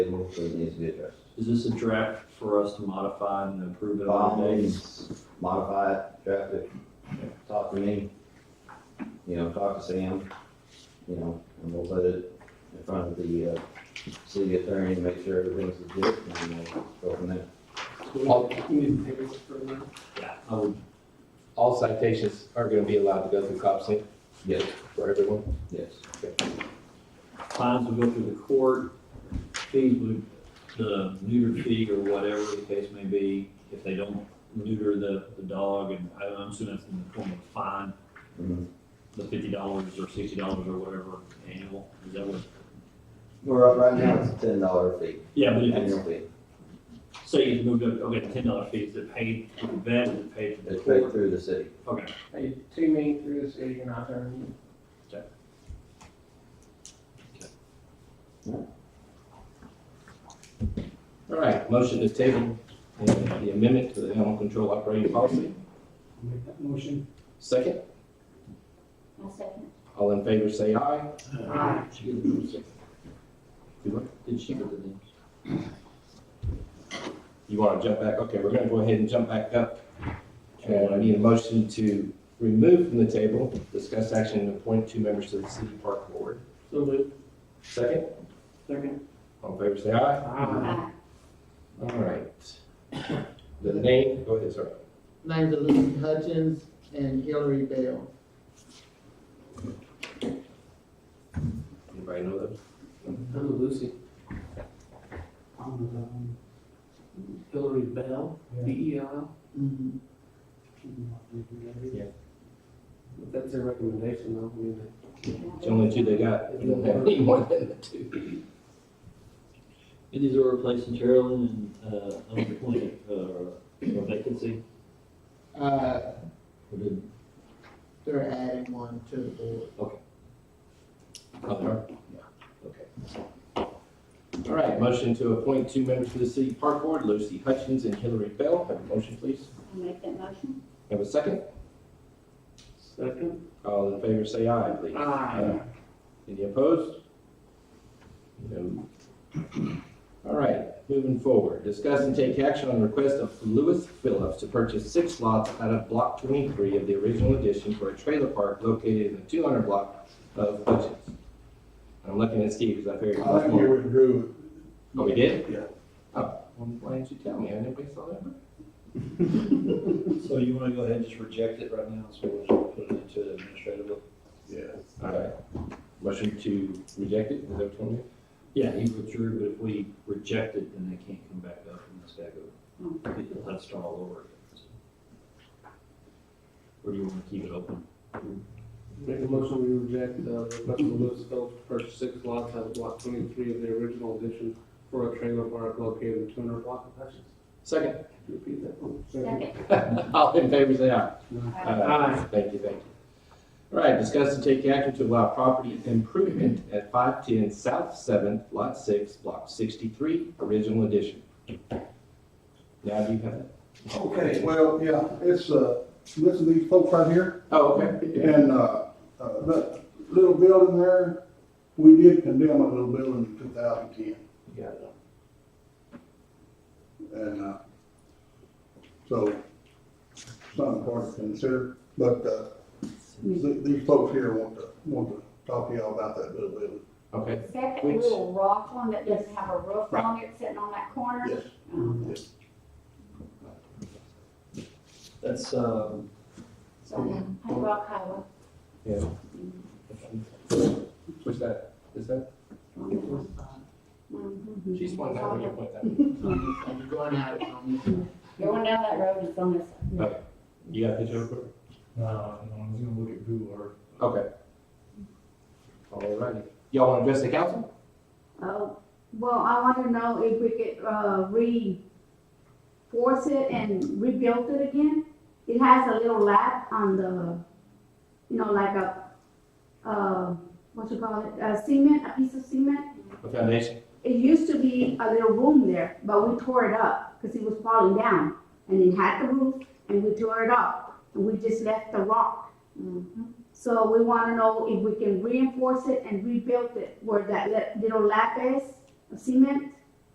schedule for it needs to be addressed. Is this a draft for us to modify and approve it By all on days? means, modify it, draft it, talk to me, you know, talk to Sam, you know, and we'll put it in front of the, uh, city attorney, to make sure everything's legit, and we'll go from there. All, I would, all citations are gonna be allowed to go through COPSI Yes, for everyone. yes. fines would go through the court, fees would, the neuter fee or whatever the case may be, if they don't neuter the, the dog, and I- I'm assuming that's in the form of a fine, Mhm. the fifty dollars or sixty dollars or whatever annual, is that what? We're up right now, it's a ten dollar fee, Yeah, but if it's, annual fee, say it's moved up, okay, ten dollar fee, is it paid to the vet, is it paid to the it's paid court? through the city. Okay. Hey, to me, through the city, and I turn you. All right, motion is tabled, and the amendment to the animal control operating policy. Make that motion. Second, My second. all in favor say aye. Uh-huh. You want- Did she get the names? You wanna jump back? Okay, we're gonna go ahead and jump back up. Uh, And I need a motion to remove from the table, discuss action, and appoint two members to the city park board. So moved. Second, Second. all in favor say aye. uh-huh. Aye. All right. The name, go ahead, sorry. Names of Lucy Hutchins and Hillary Bell. Anybody know those? Hello, Lucy. Um, Hillary Bell, B E L. Mhm. Yeah. But That's their recommendation, though, I mean, It's the only two they got. You don't have any more than the two. And these are replacing Carolyn and, uh, unappointed, uh, or vacancy, Uh, or did, they're adding one to the board. Oh, they are? Okay. All right, motion to appoint two members to the city park board, Lucy Hutchins and Hillary Bell. Have a motion, please. I'll make that motion. Have a second? second. Uh, All in favor, say aye, please. Aye. Any opposed? No. All right, moving forward. Discuss and take action on the request of Lewis Phillips to purchase six lots out of block twenty-three of the original addition for a trailer park located in the two hundred block of Hutchins. I'm looking at Steve because I figured. I think you withdrew Oh, we did? Yeah. Oh, well, why didn't you tell me? I didn't waste all that. money. so you wanna go ahead and just reject it right now, so we'll just put it into the administrative? Yeah. All right. Motion to reject it, is that what you want me Yeah, he withdrew, but if we reject it, then they can't come back up and it's back over. You'll have to start all over again. Or do you wanna keep it open? Make a motion, we reject the request of Lewis Phillips to purchase six lots out of block twenty-three of the original addition for a trailer park located in two hundred block of Hutchins. Second, Repeat that one. Second. Uh, all in favor, say aye. Uh, Aye. Aye. Thank you, thank you. All right, discuss and take action to allow property improvement at five ten South Seventh, Lot Six, Block sixty-three, original edition. Now, do you have it? Okay, well, yeah, it's, uh, listen to these folks right here, Oh, okay. Yeah. and, uh, uh, that little building there, we did condemn a little building in two thousand ten. You got it. And, uh, so, something hard to consider, but, uh, th- these folks here want to, want to talk to y'all about that little building. Okay, Is that that Which- little rock one that doesn't have a roof on it sitting on that corner? Yes. Um, That's, um. So, High Rock Highway. what's that? Is that? uh, Mhm. She's one that, you point that. So you're going out on this one. Going down that road is on this. You got a picture of it? No, no, I was gonna look at Google Earth. Okay. All righty. Y'all want to address the council? Oh, well, I want to know if we could, uh, reinforce it and rebuild it again. It has a little lap on the, you know, like a, uh, what you call it, a cement, a piece of cement. The foundation? It used to be a little room there, but we tore it up because it was falling down. And it had the roof and we tore it up and we just left the rock. So we want to know if we can reinforce it and rebuild it where that le- little lap is of cement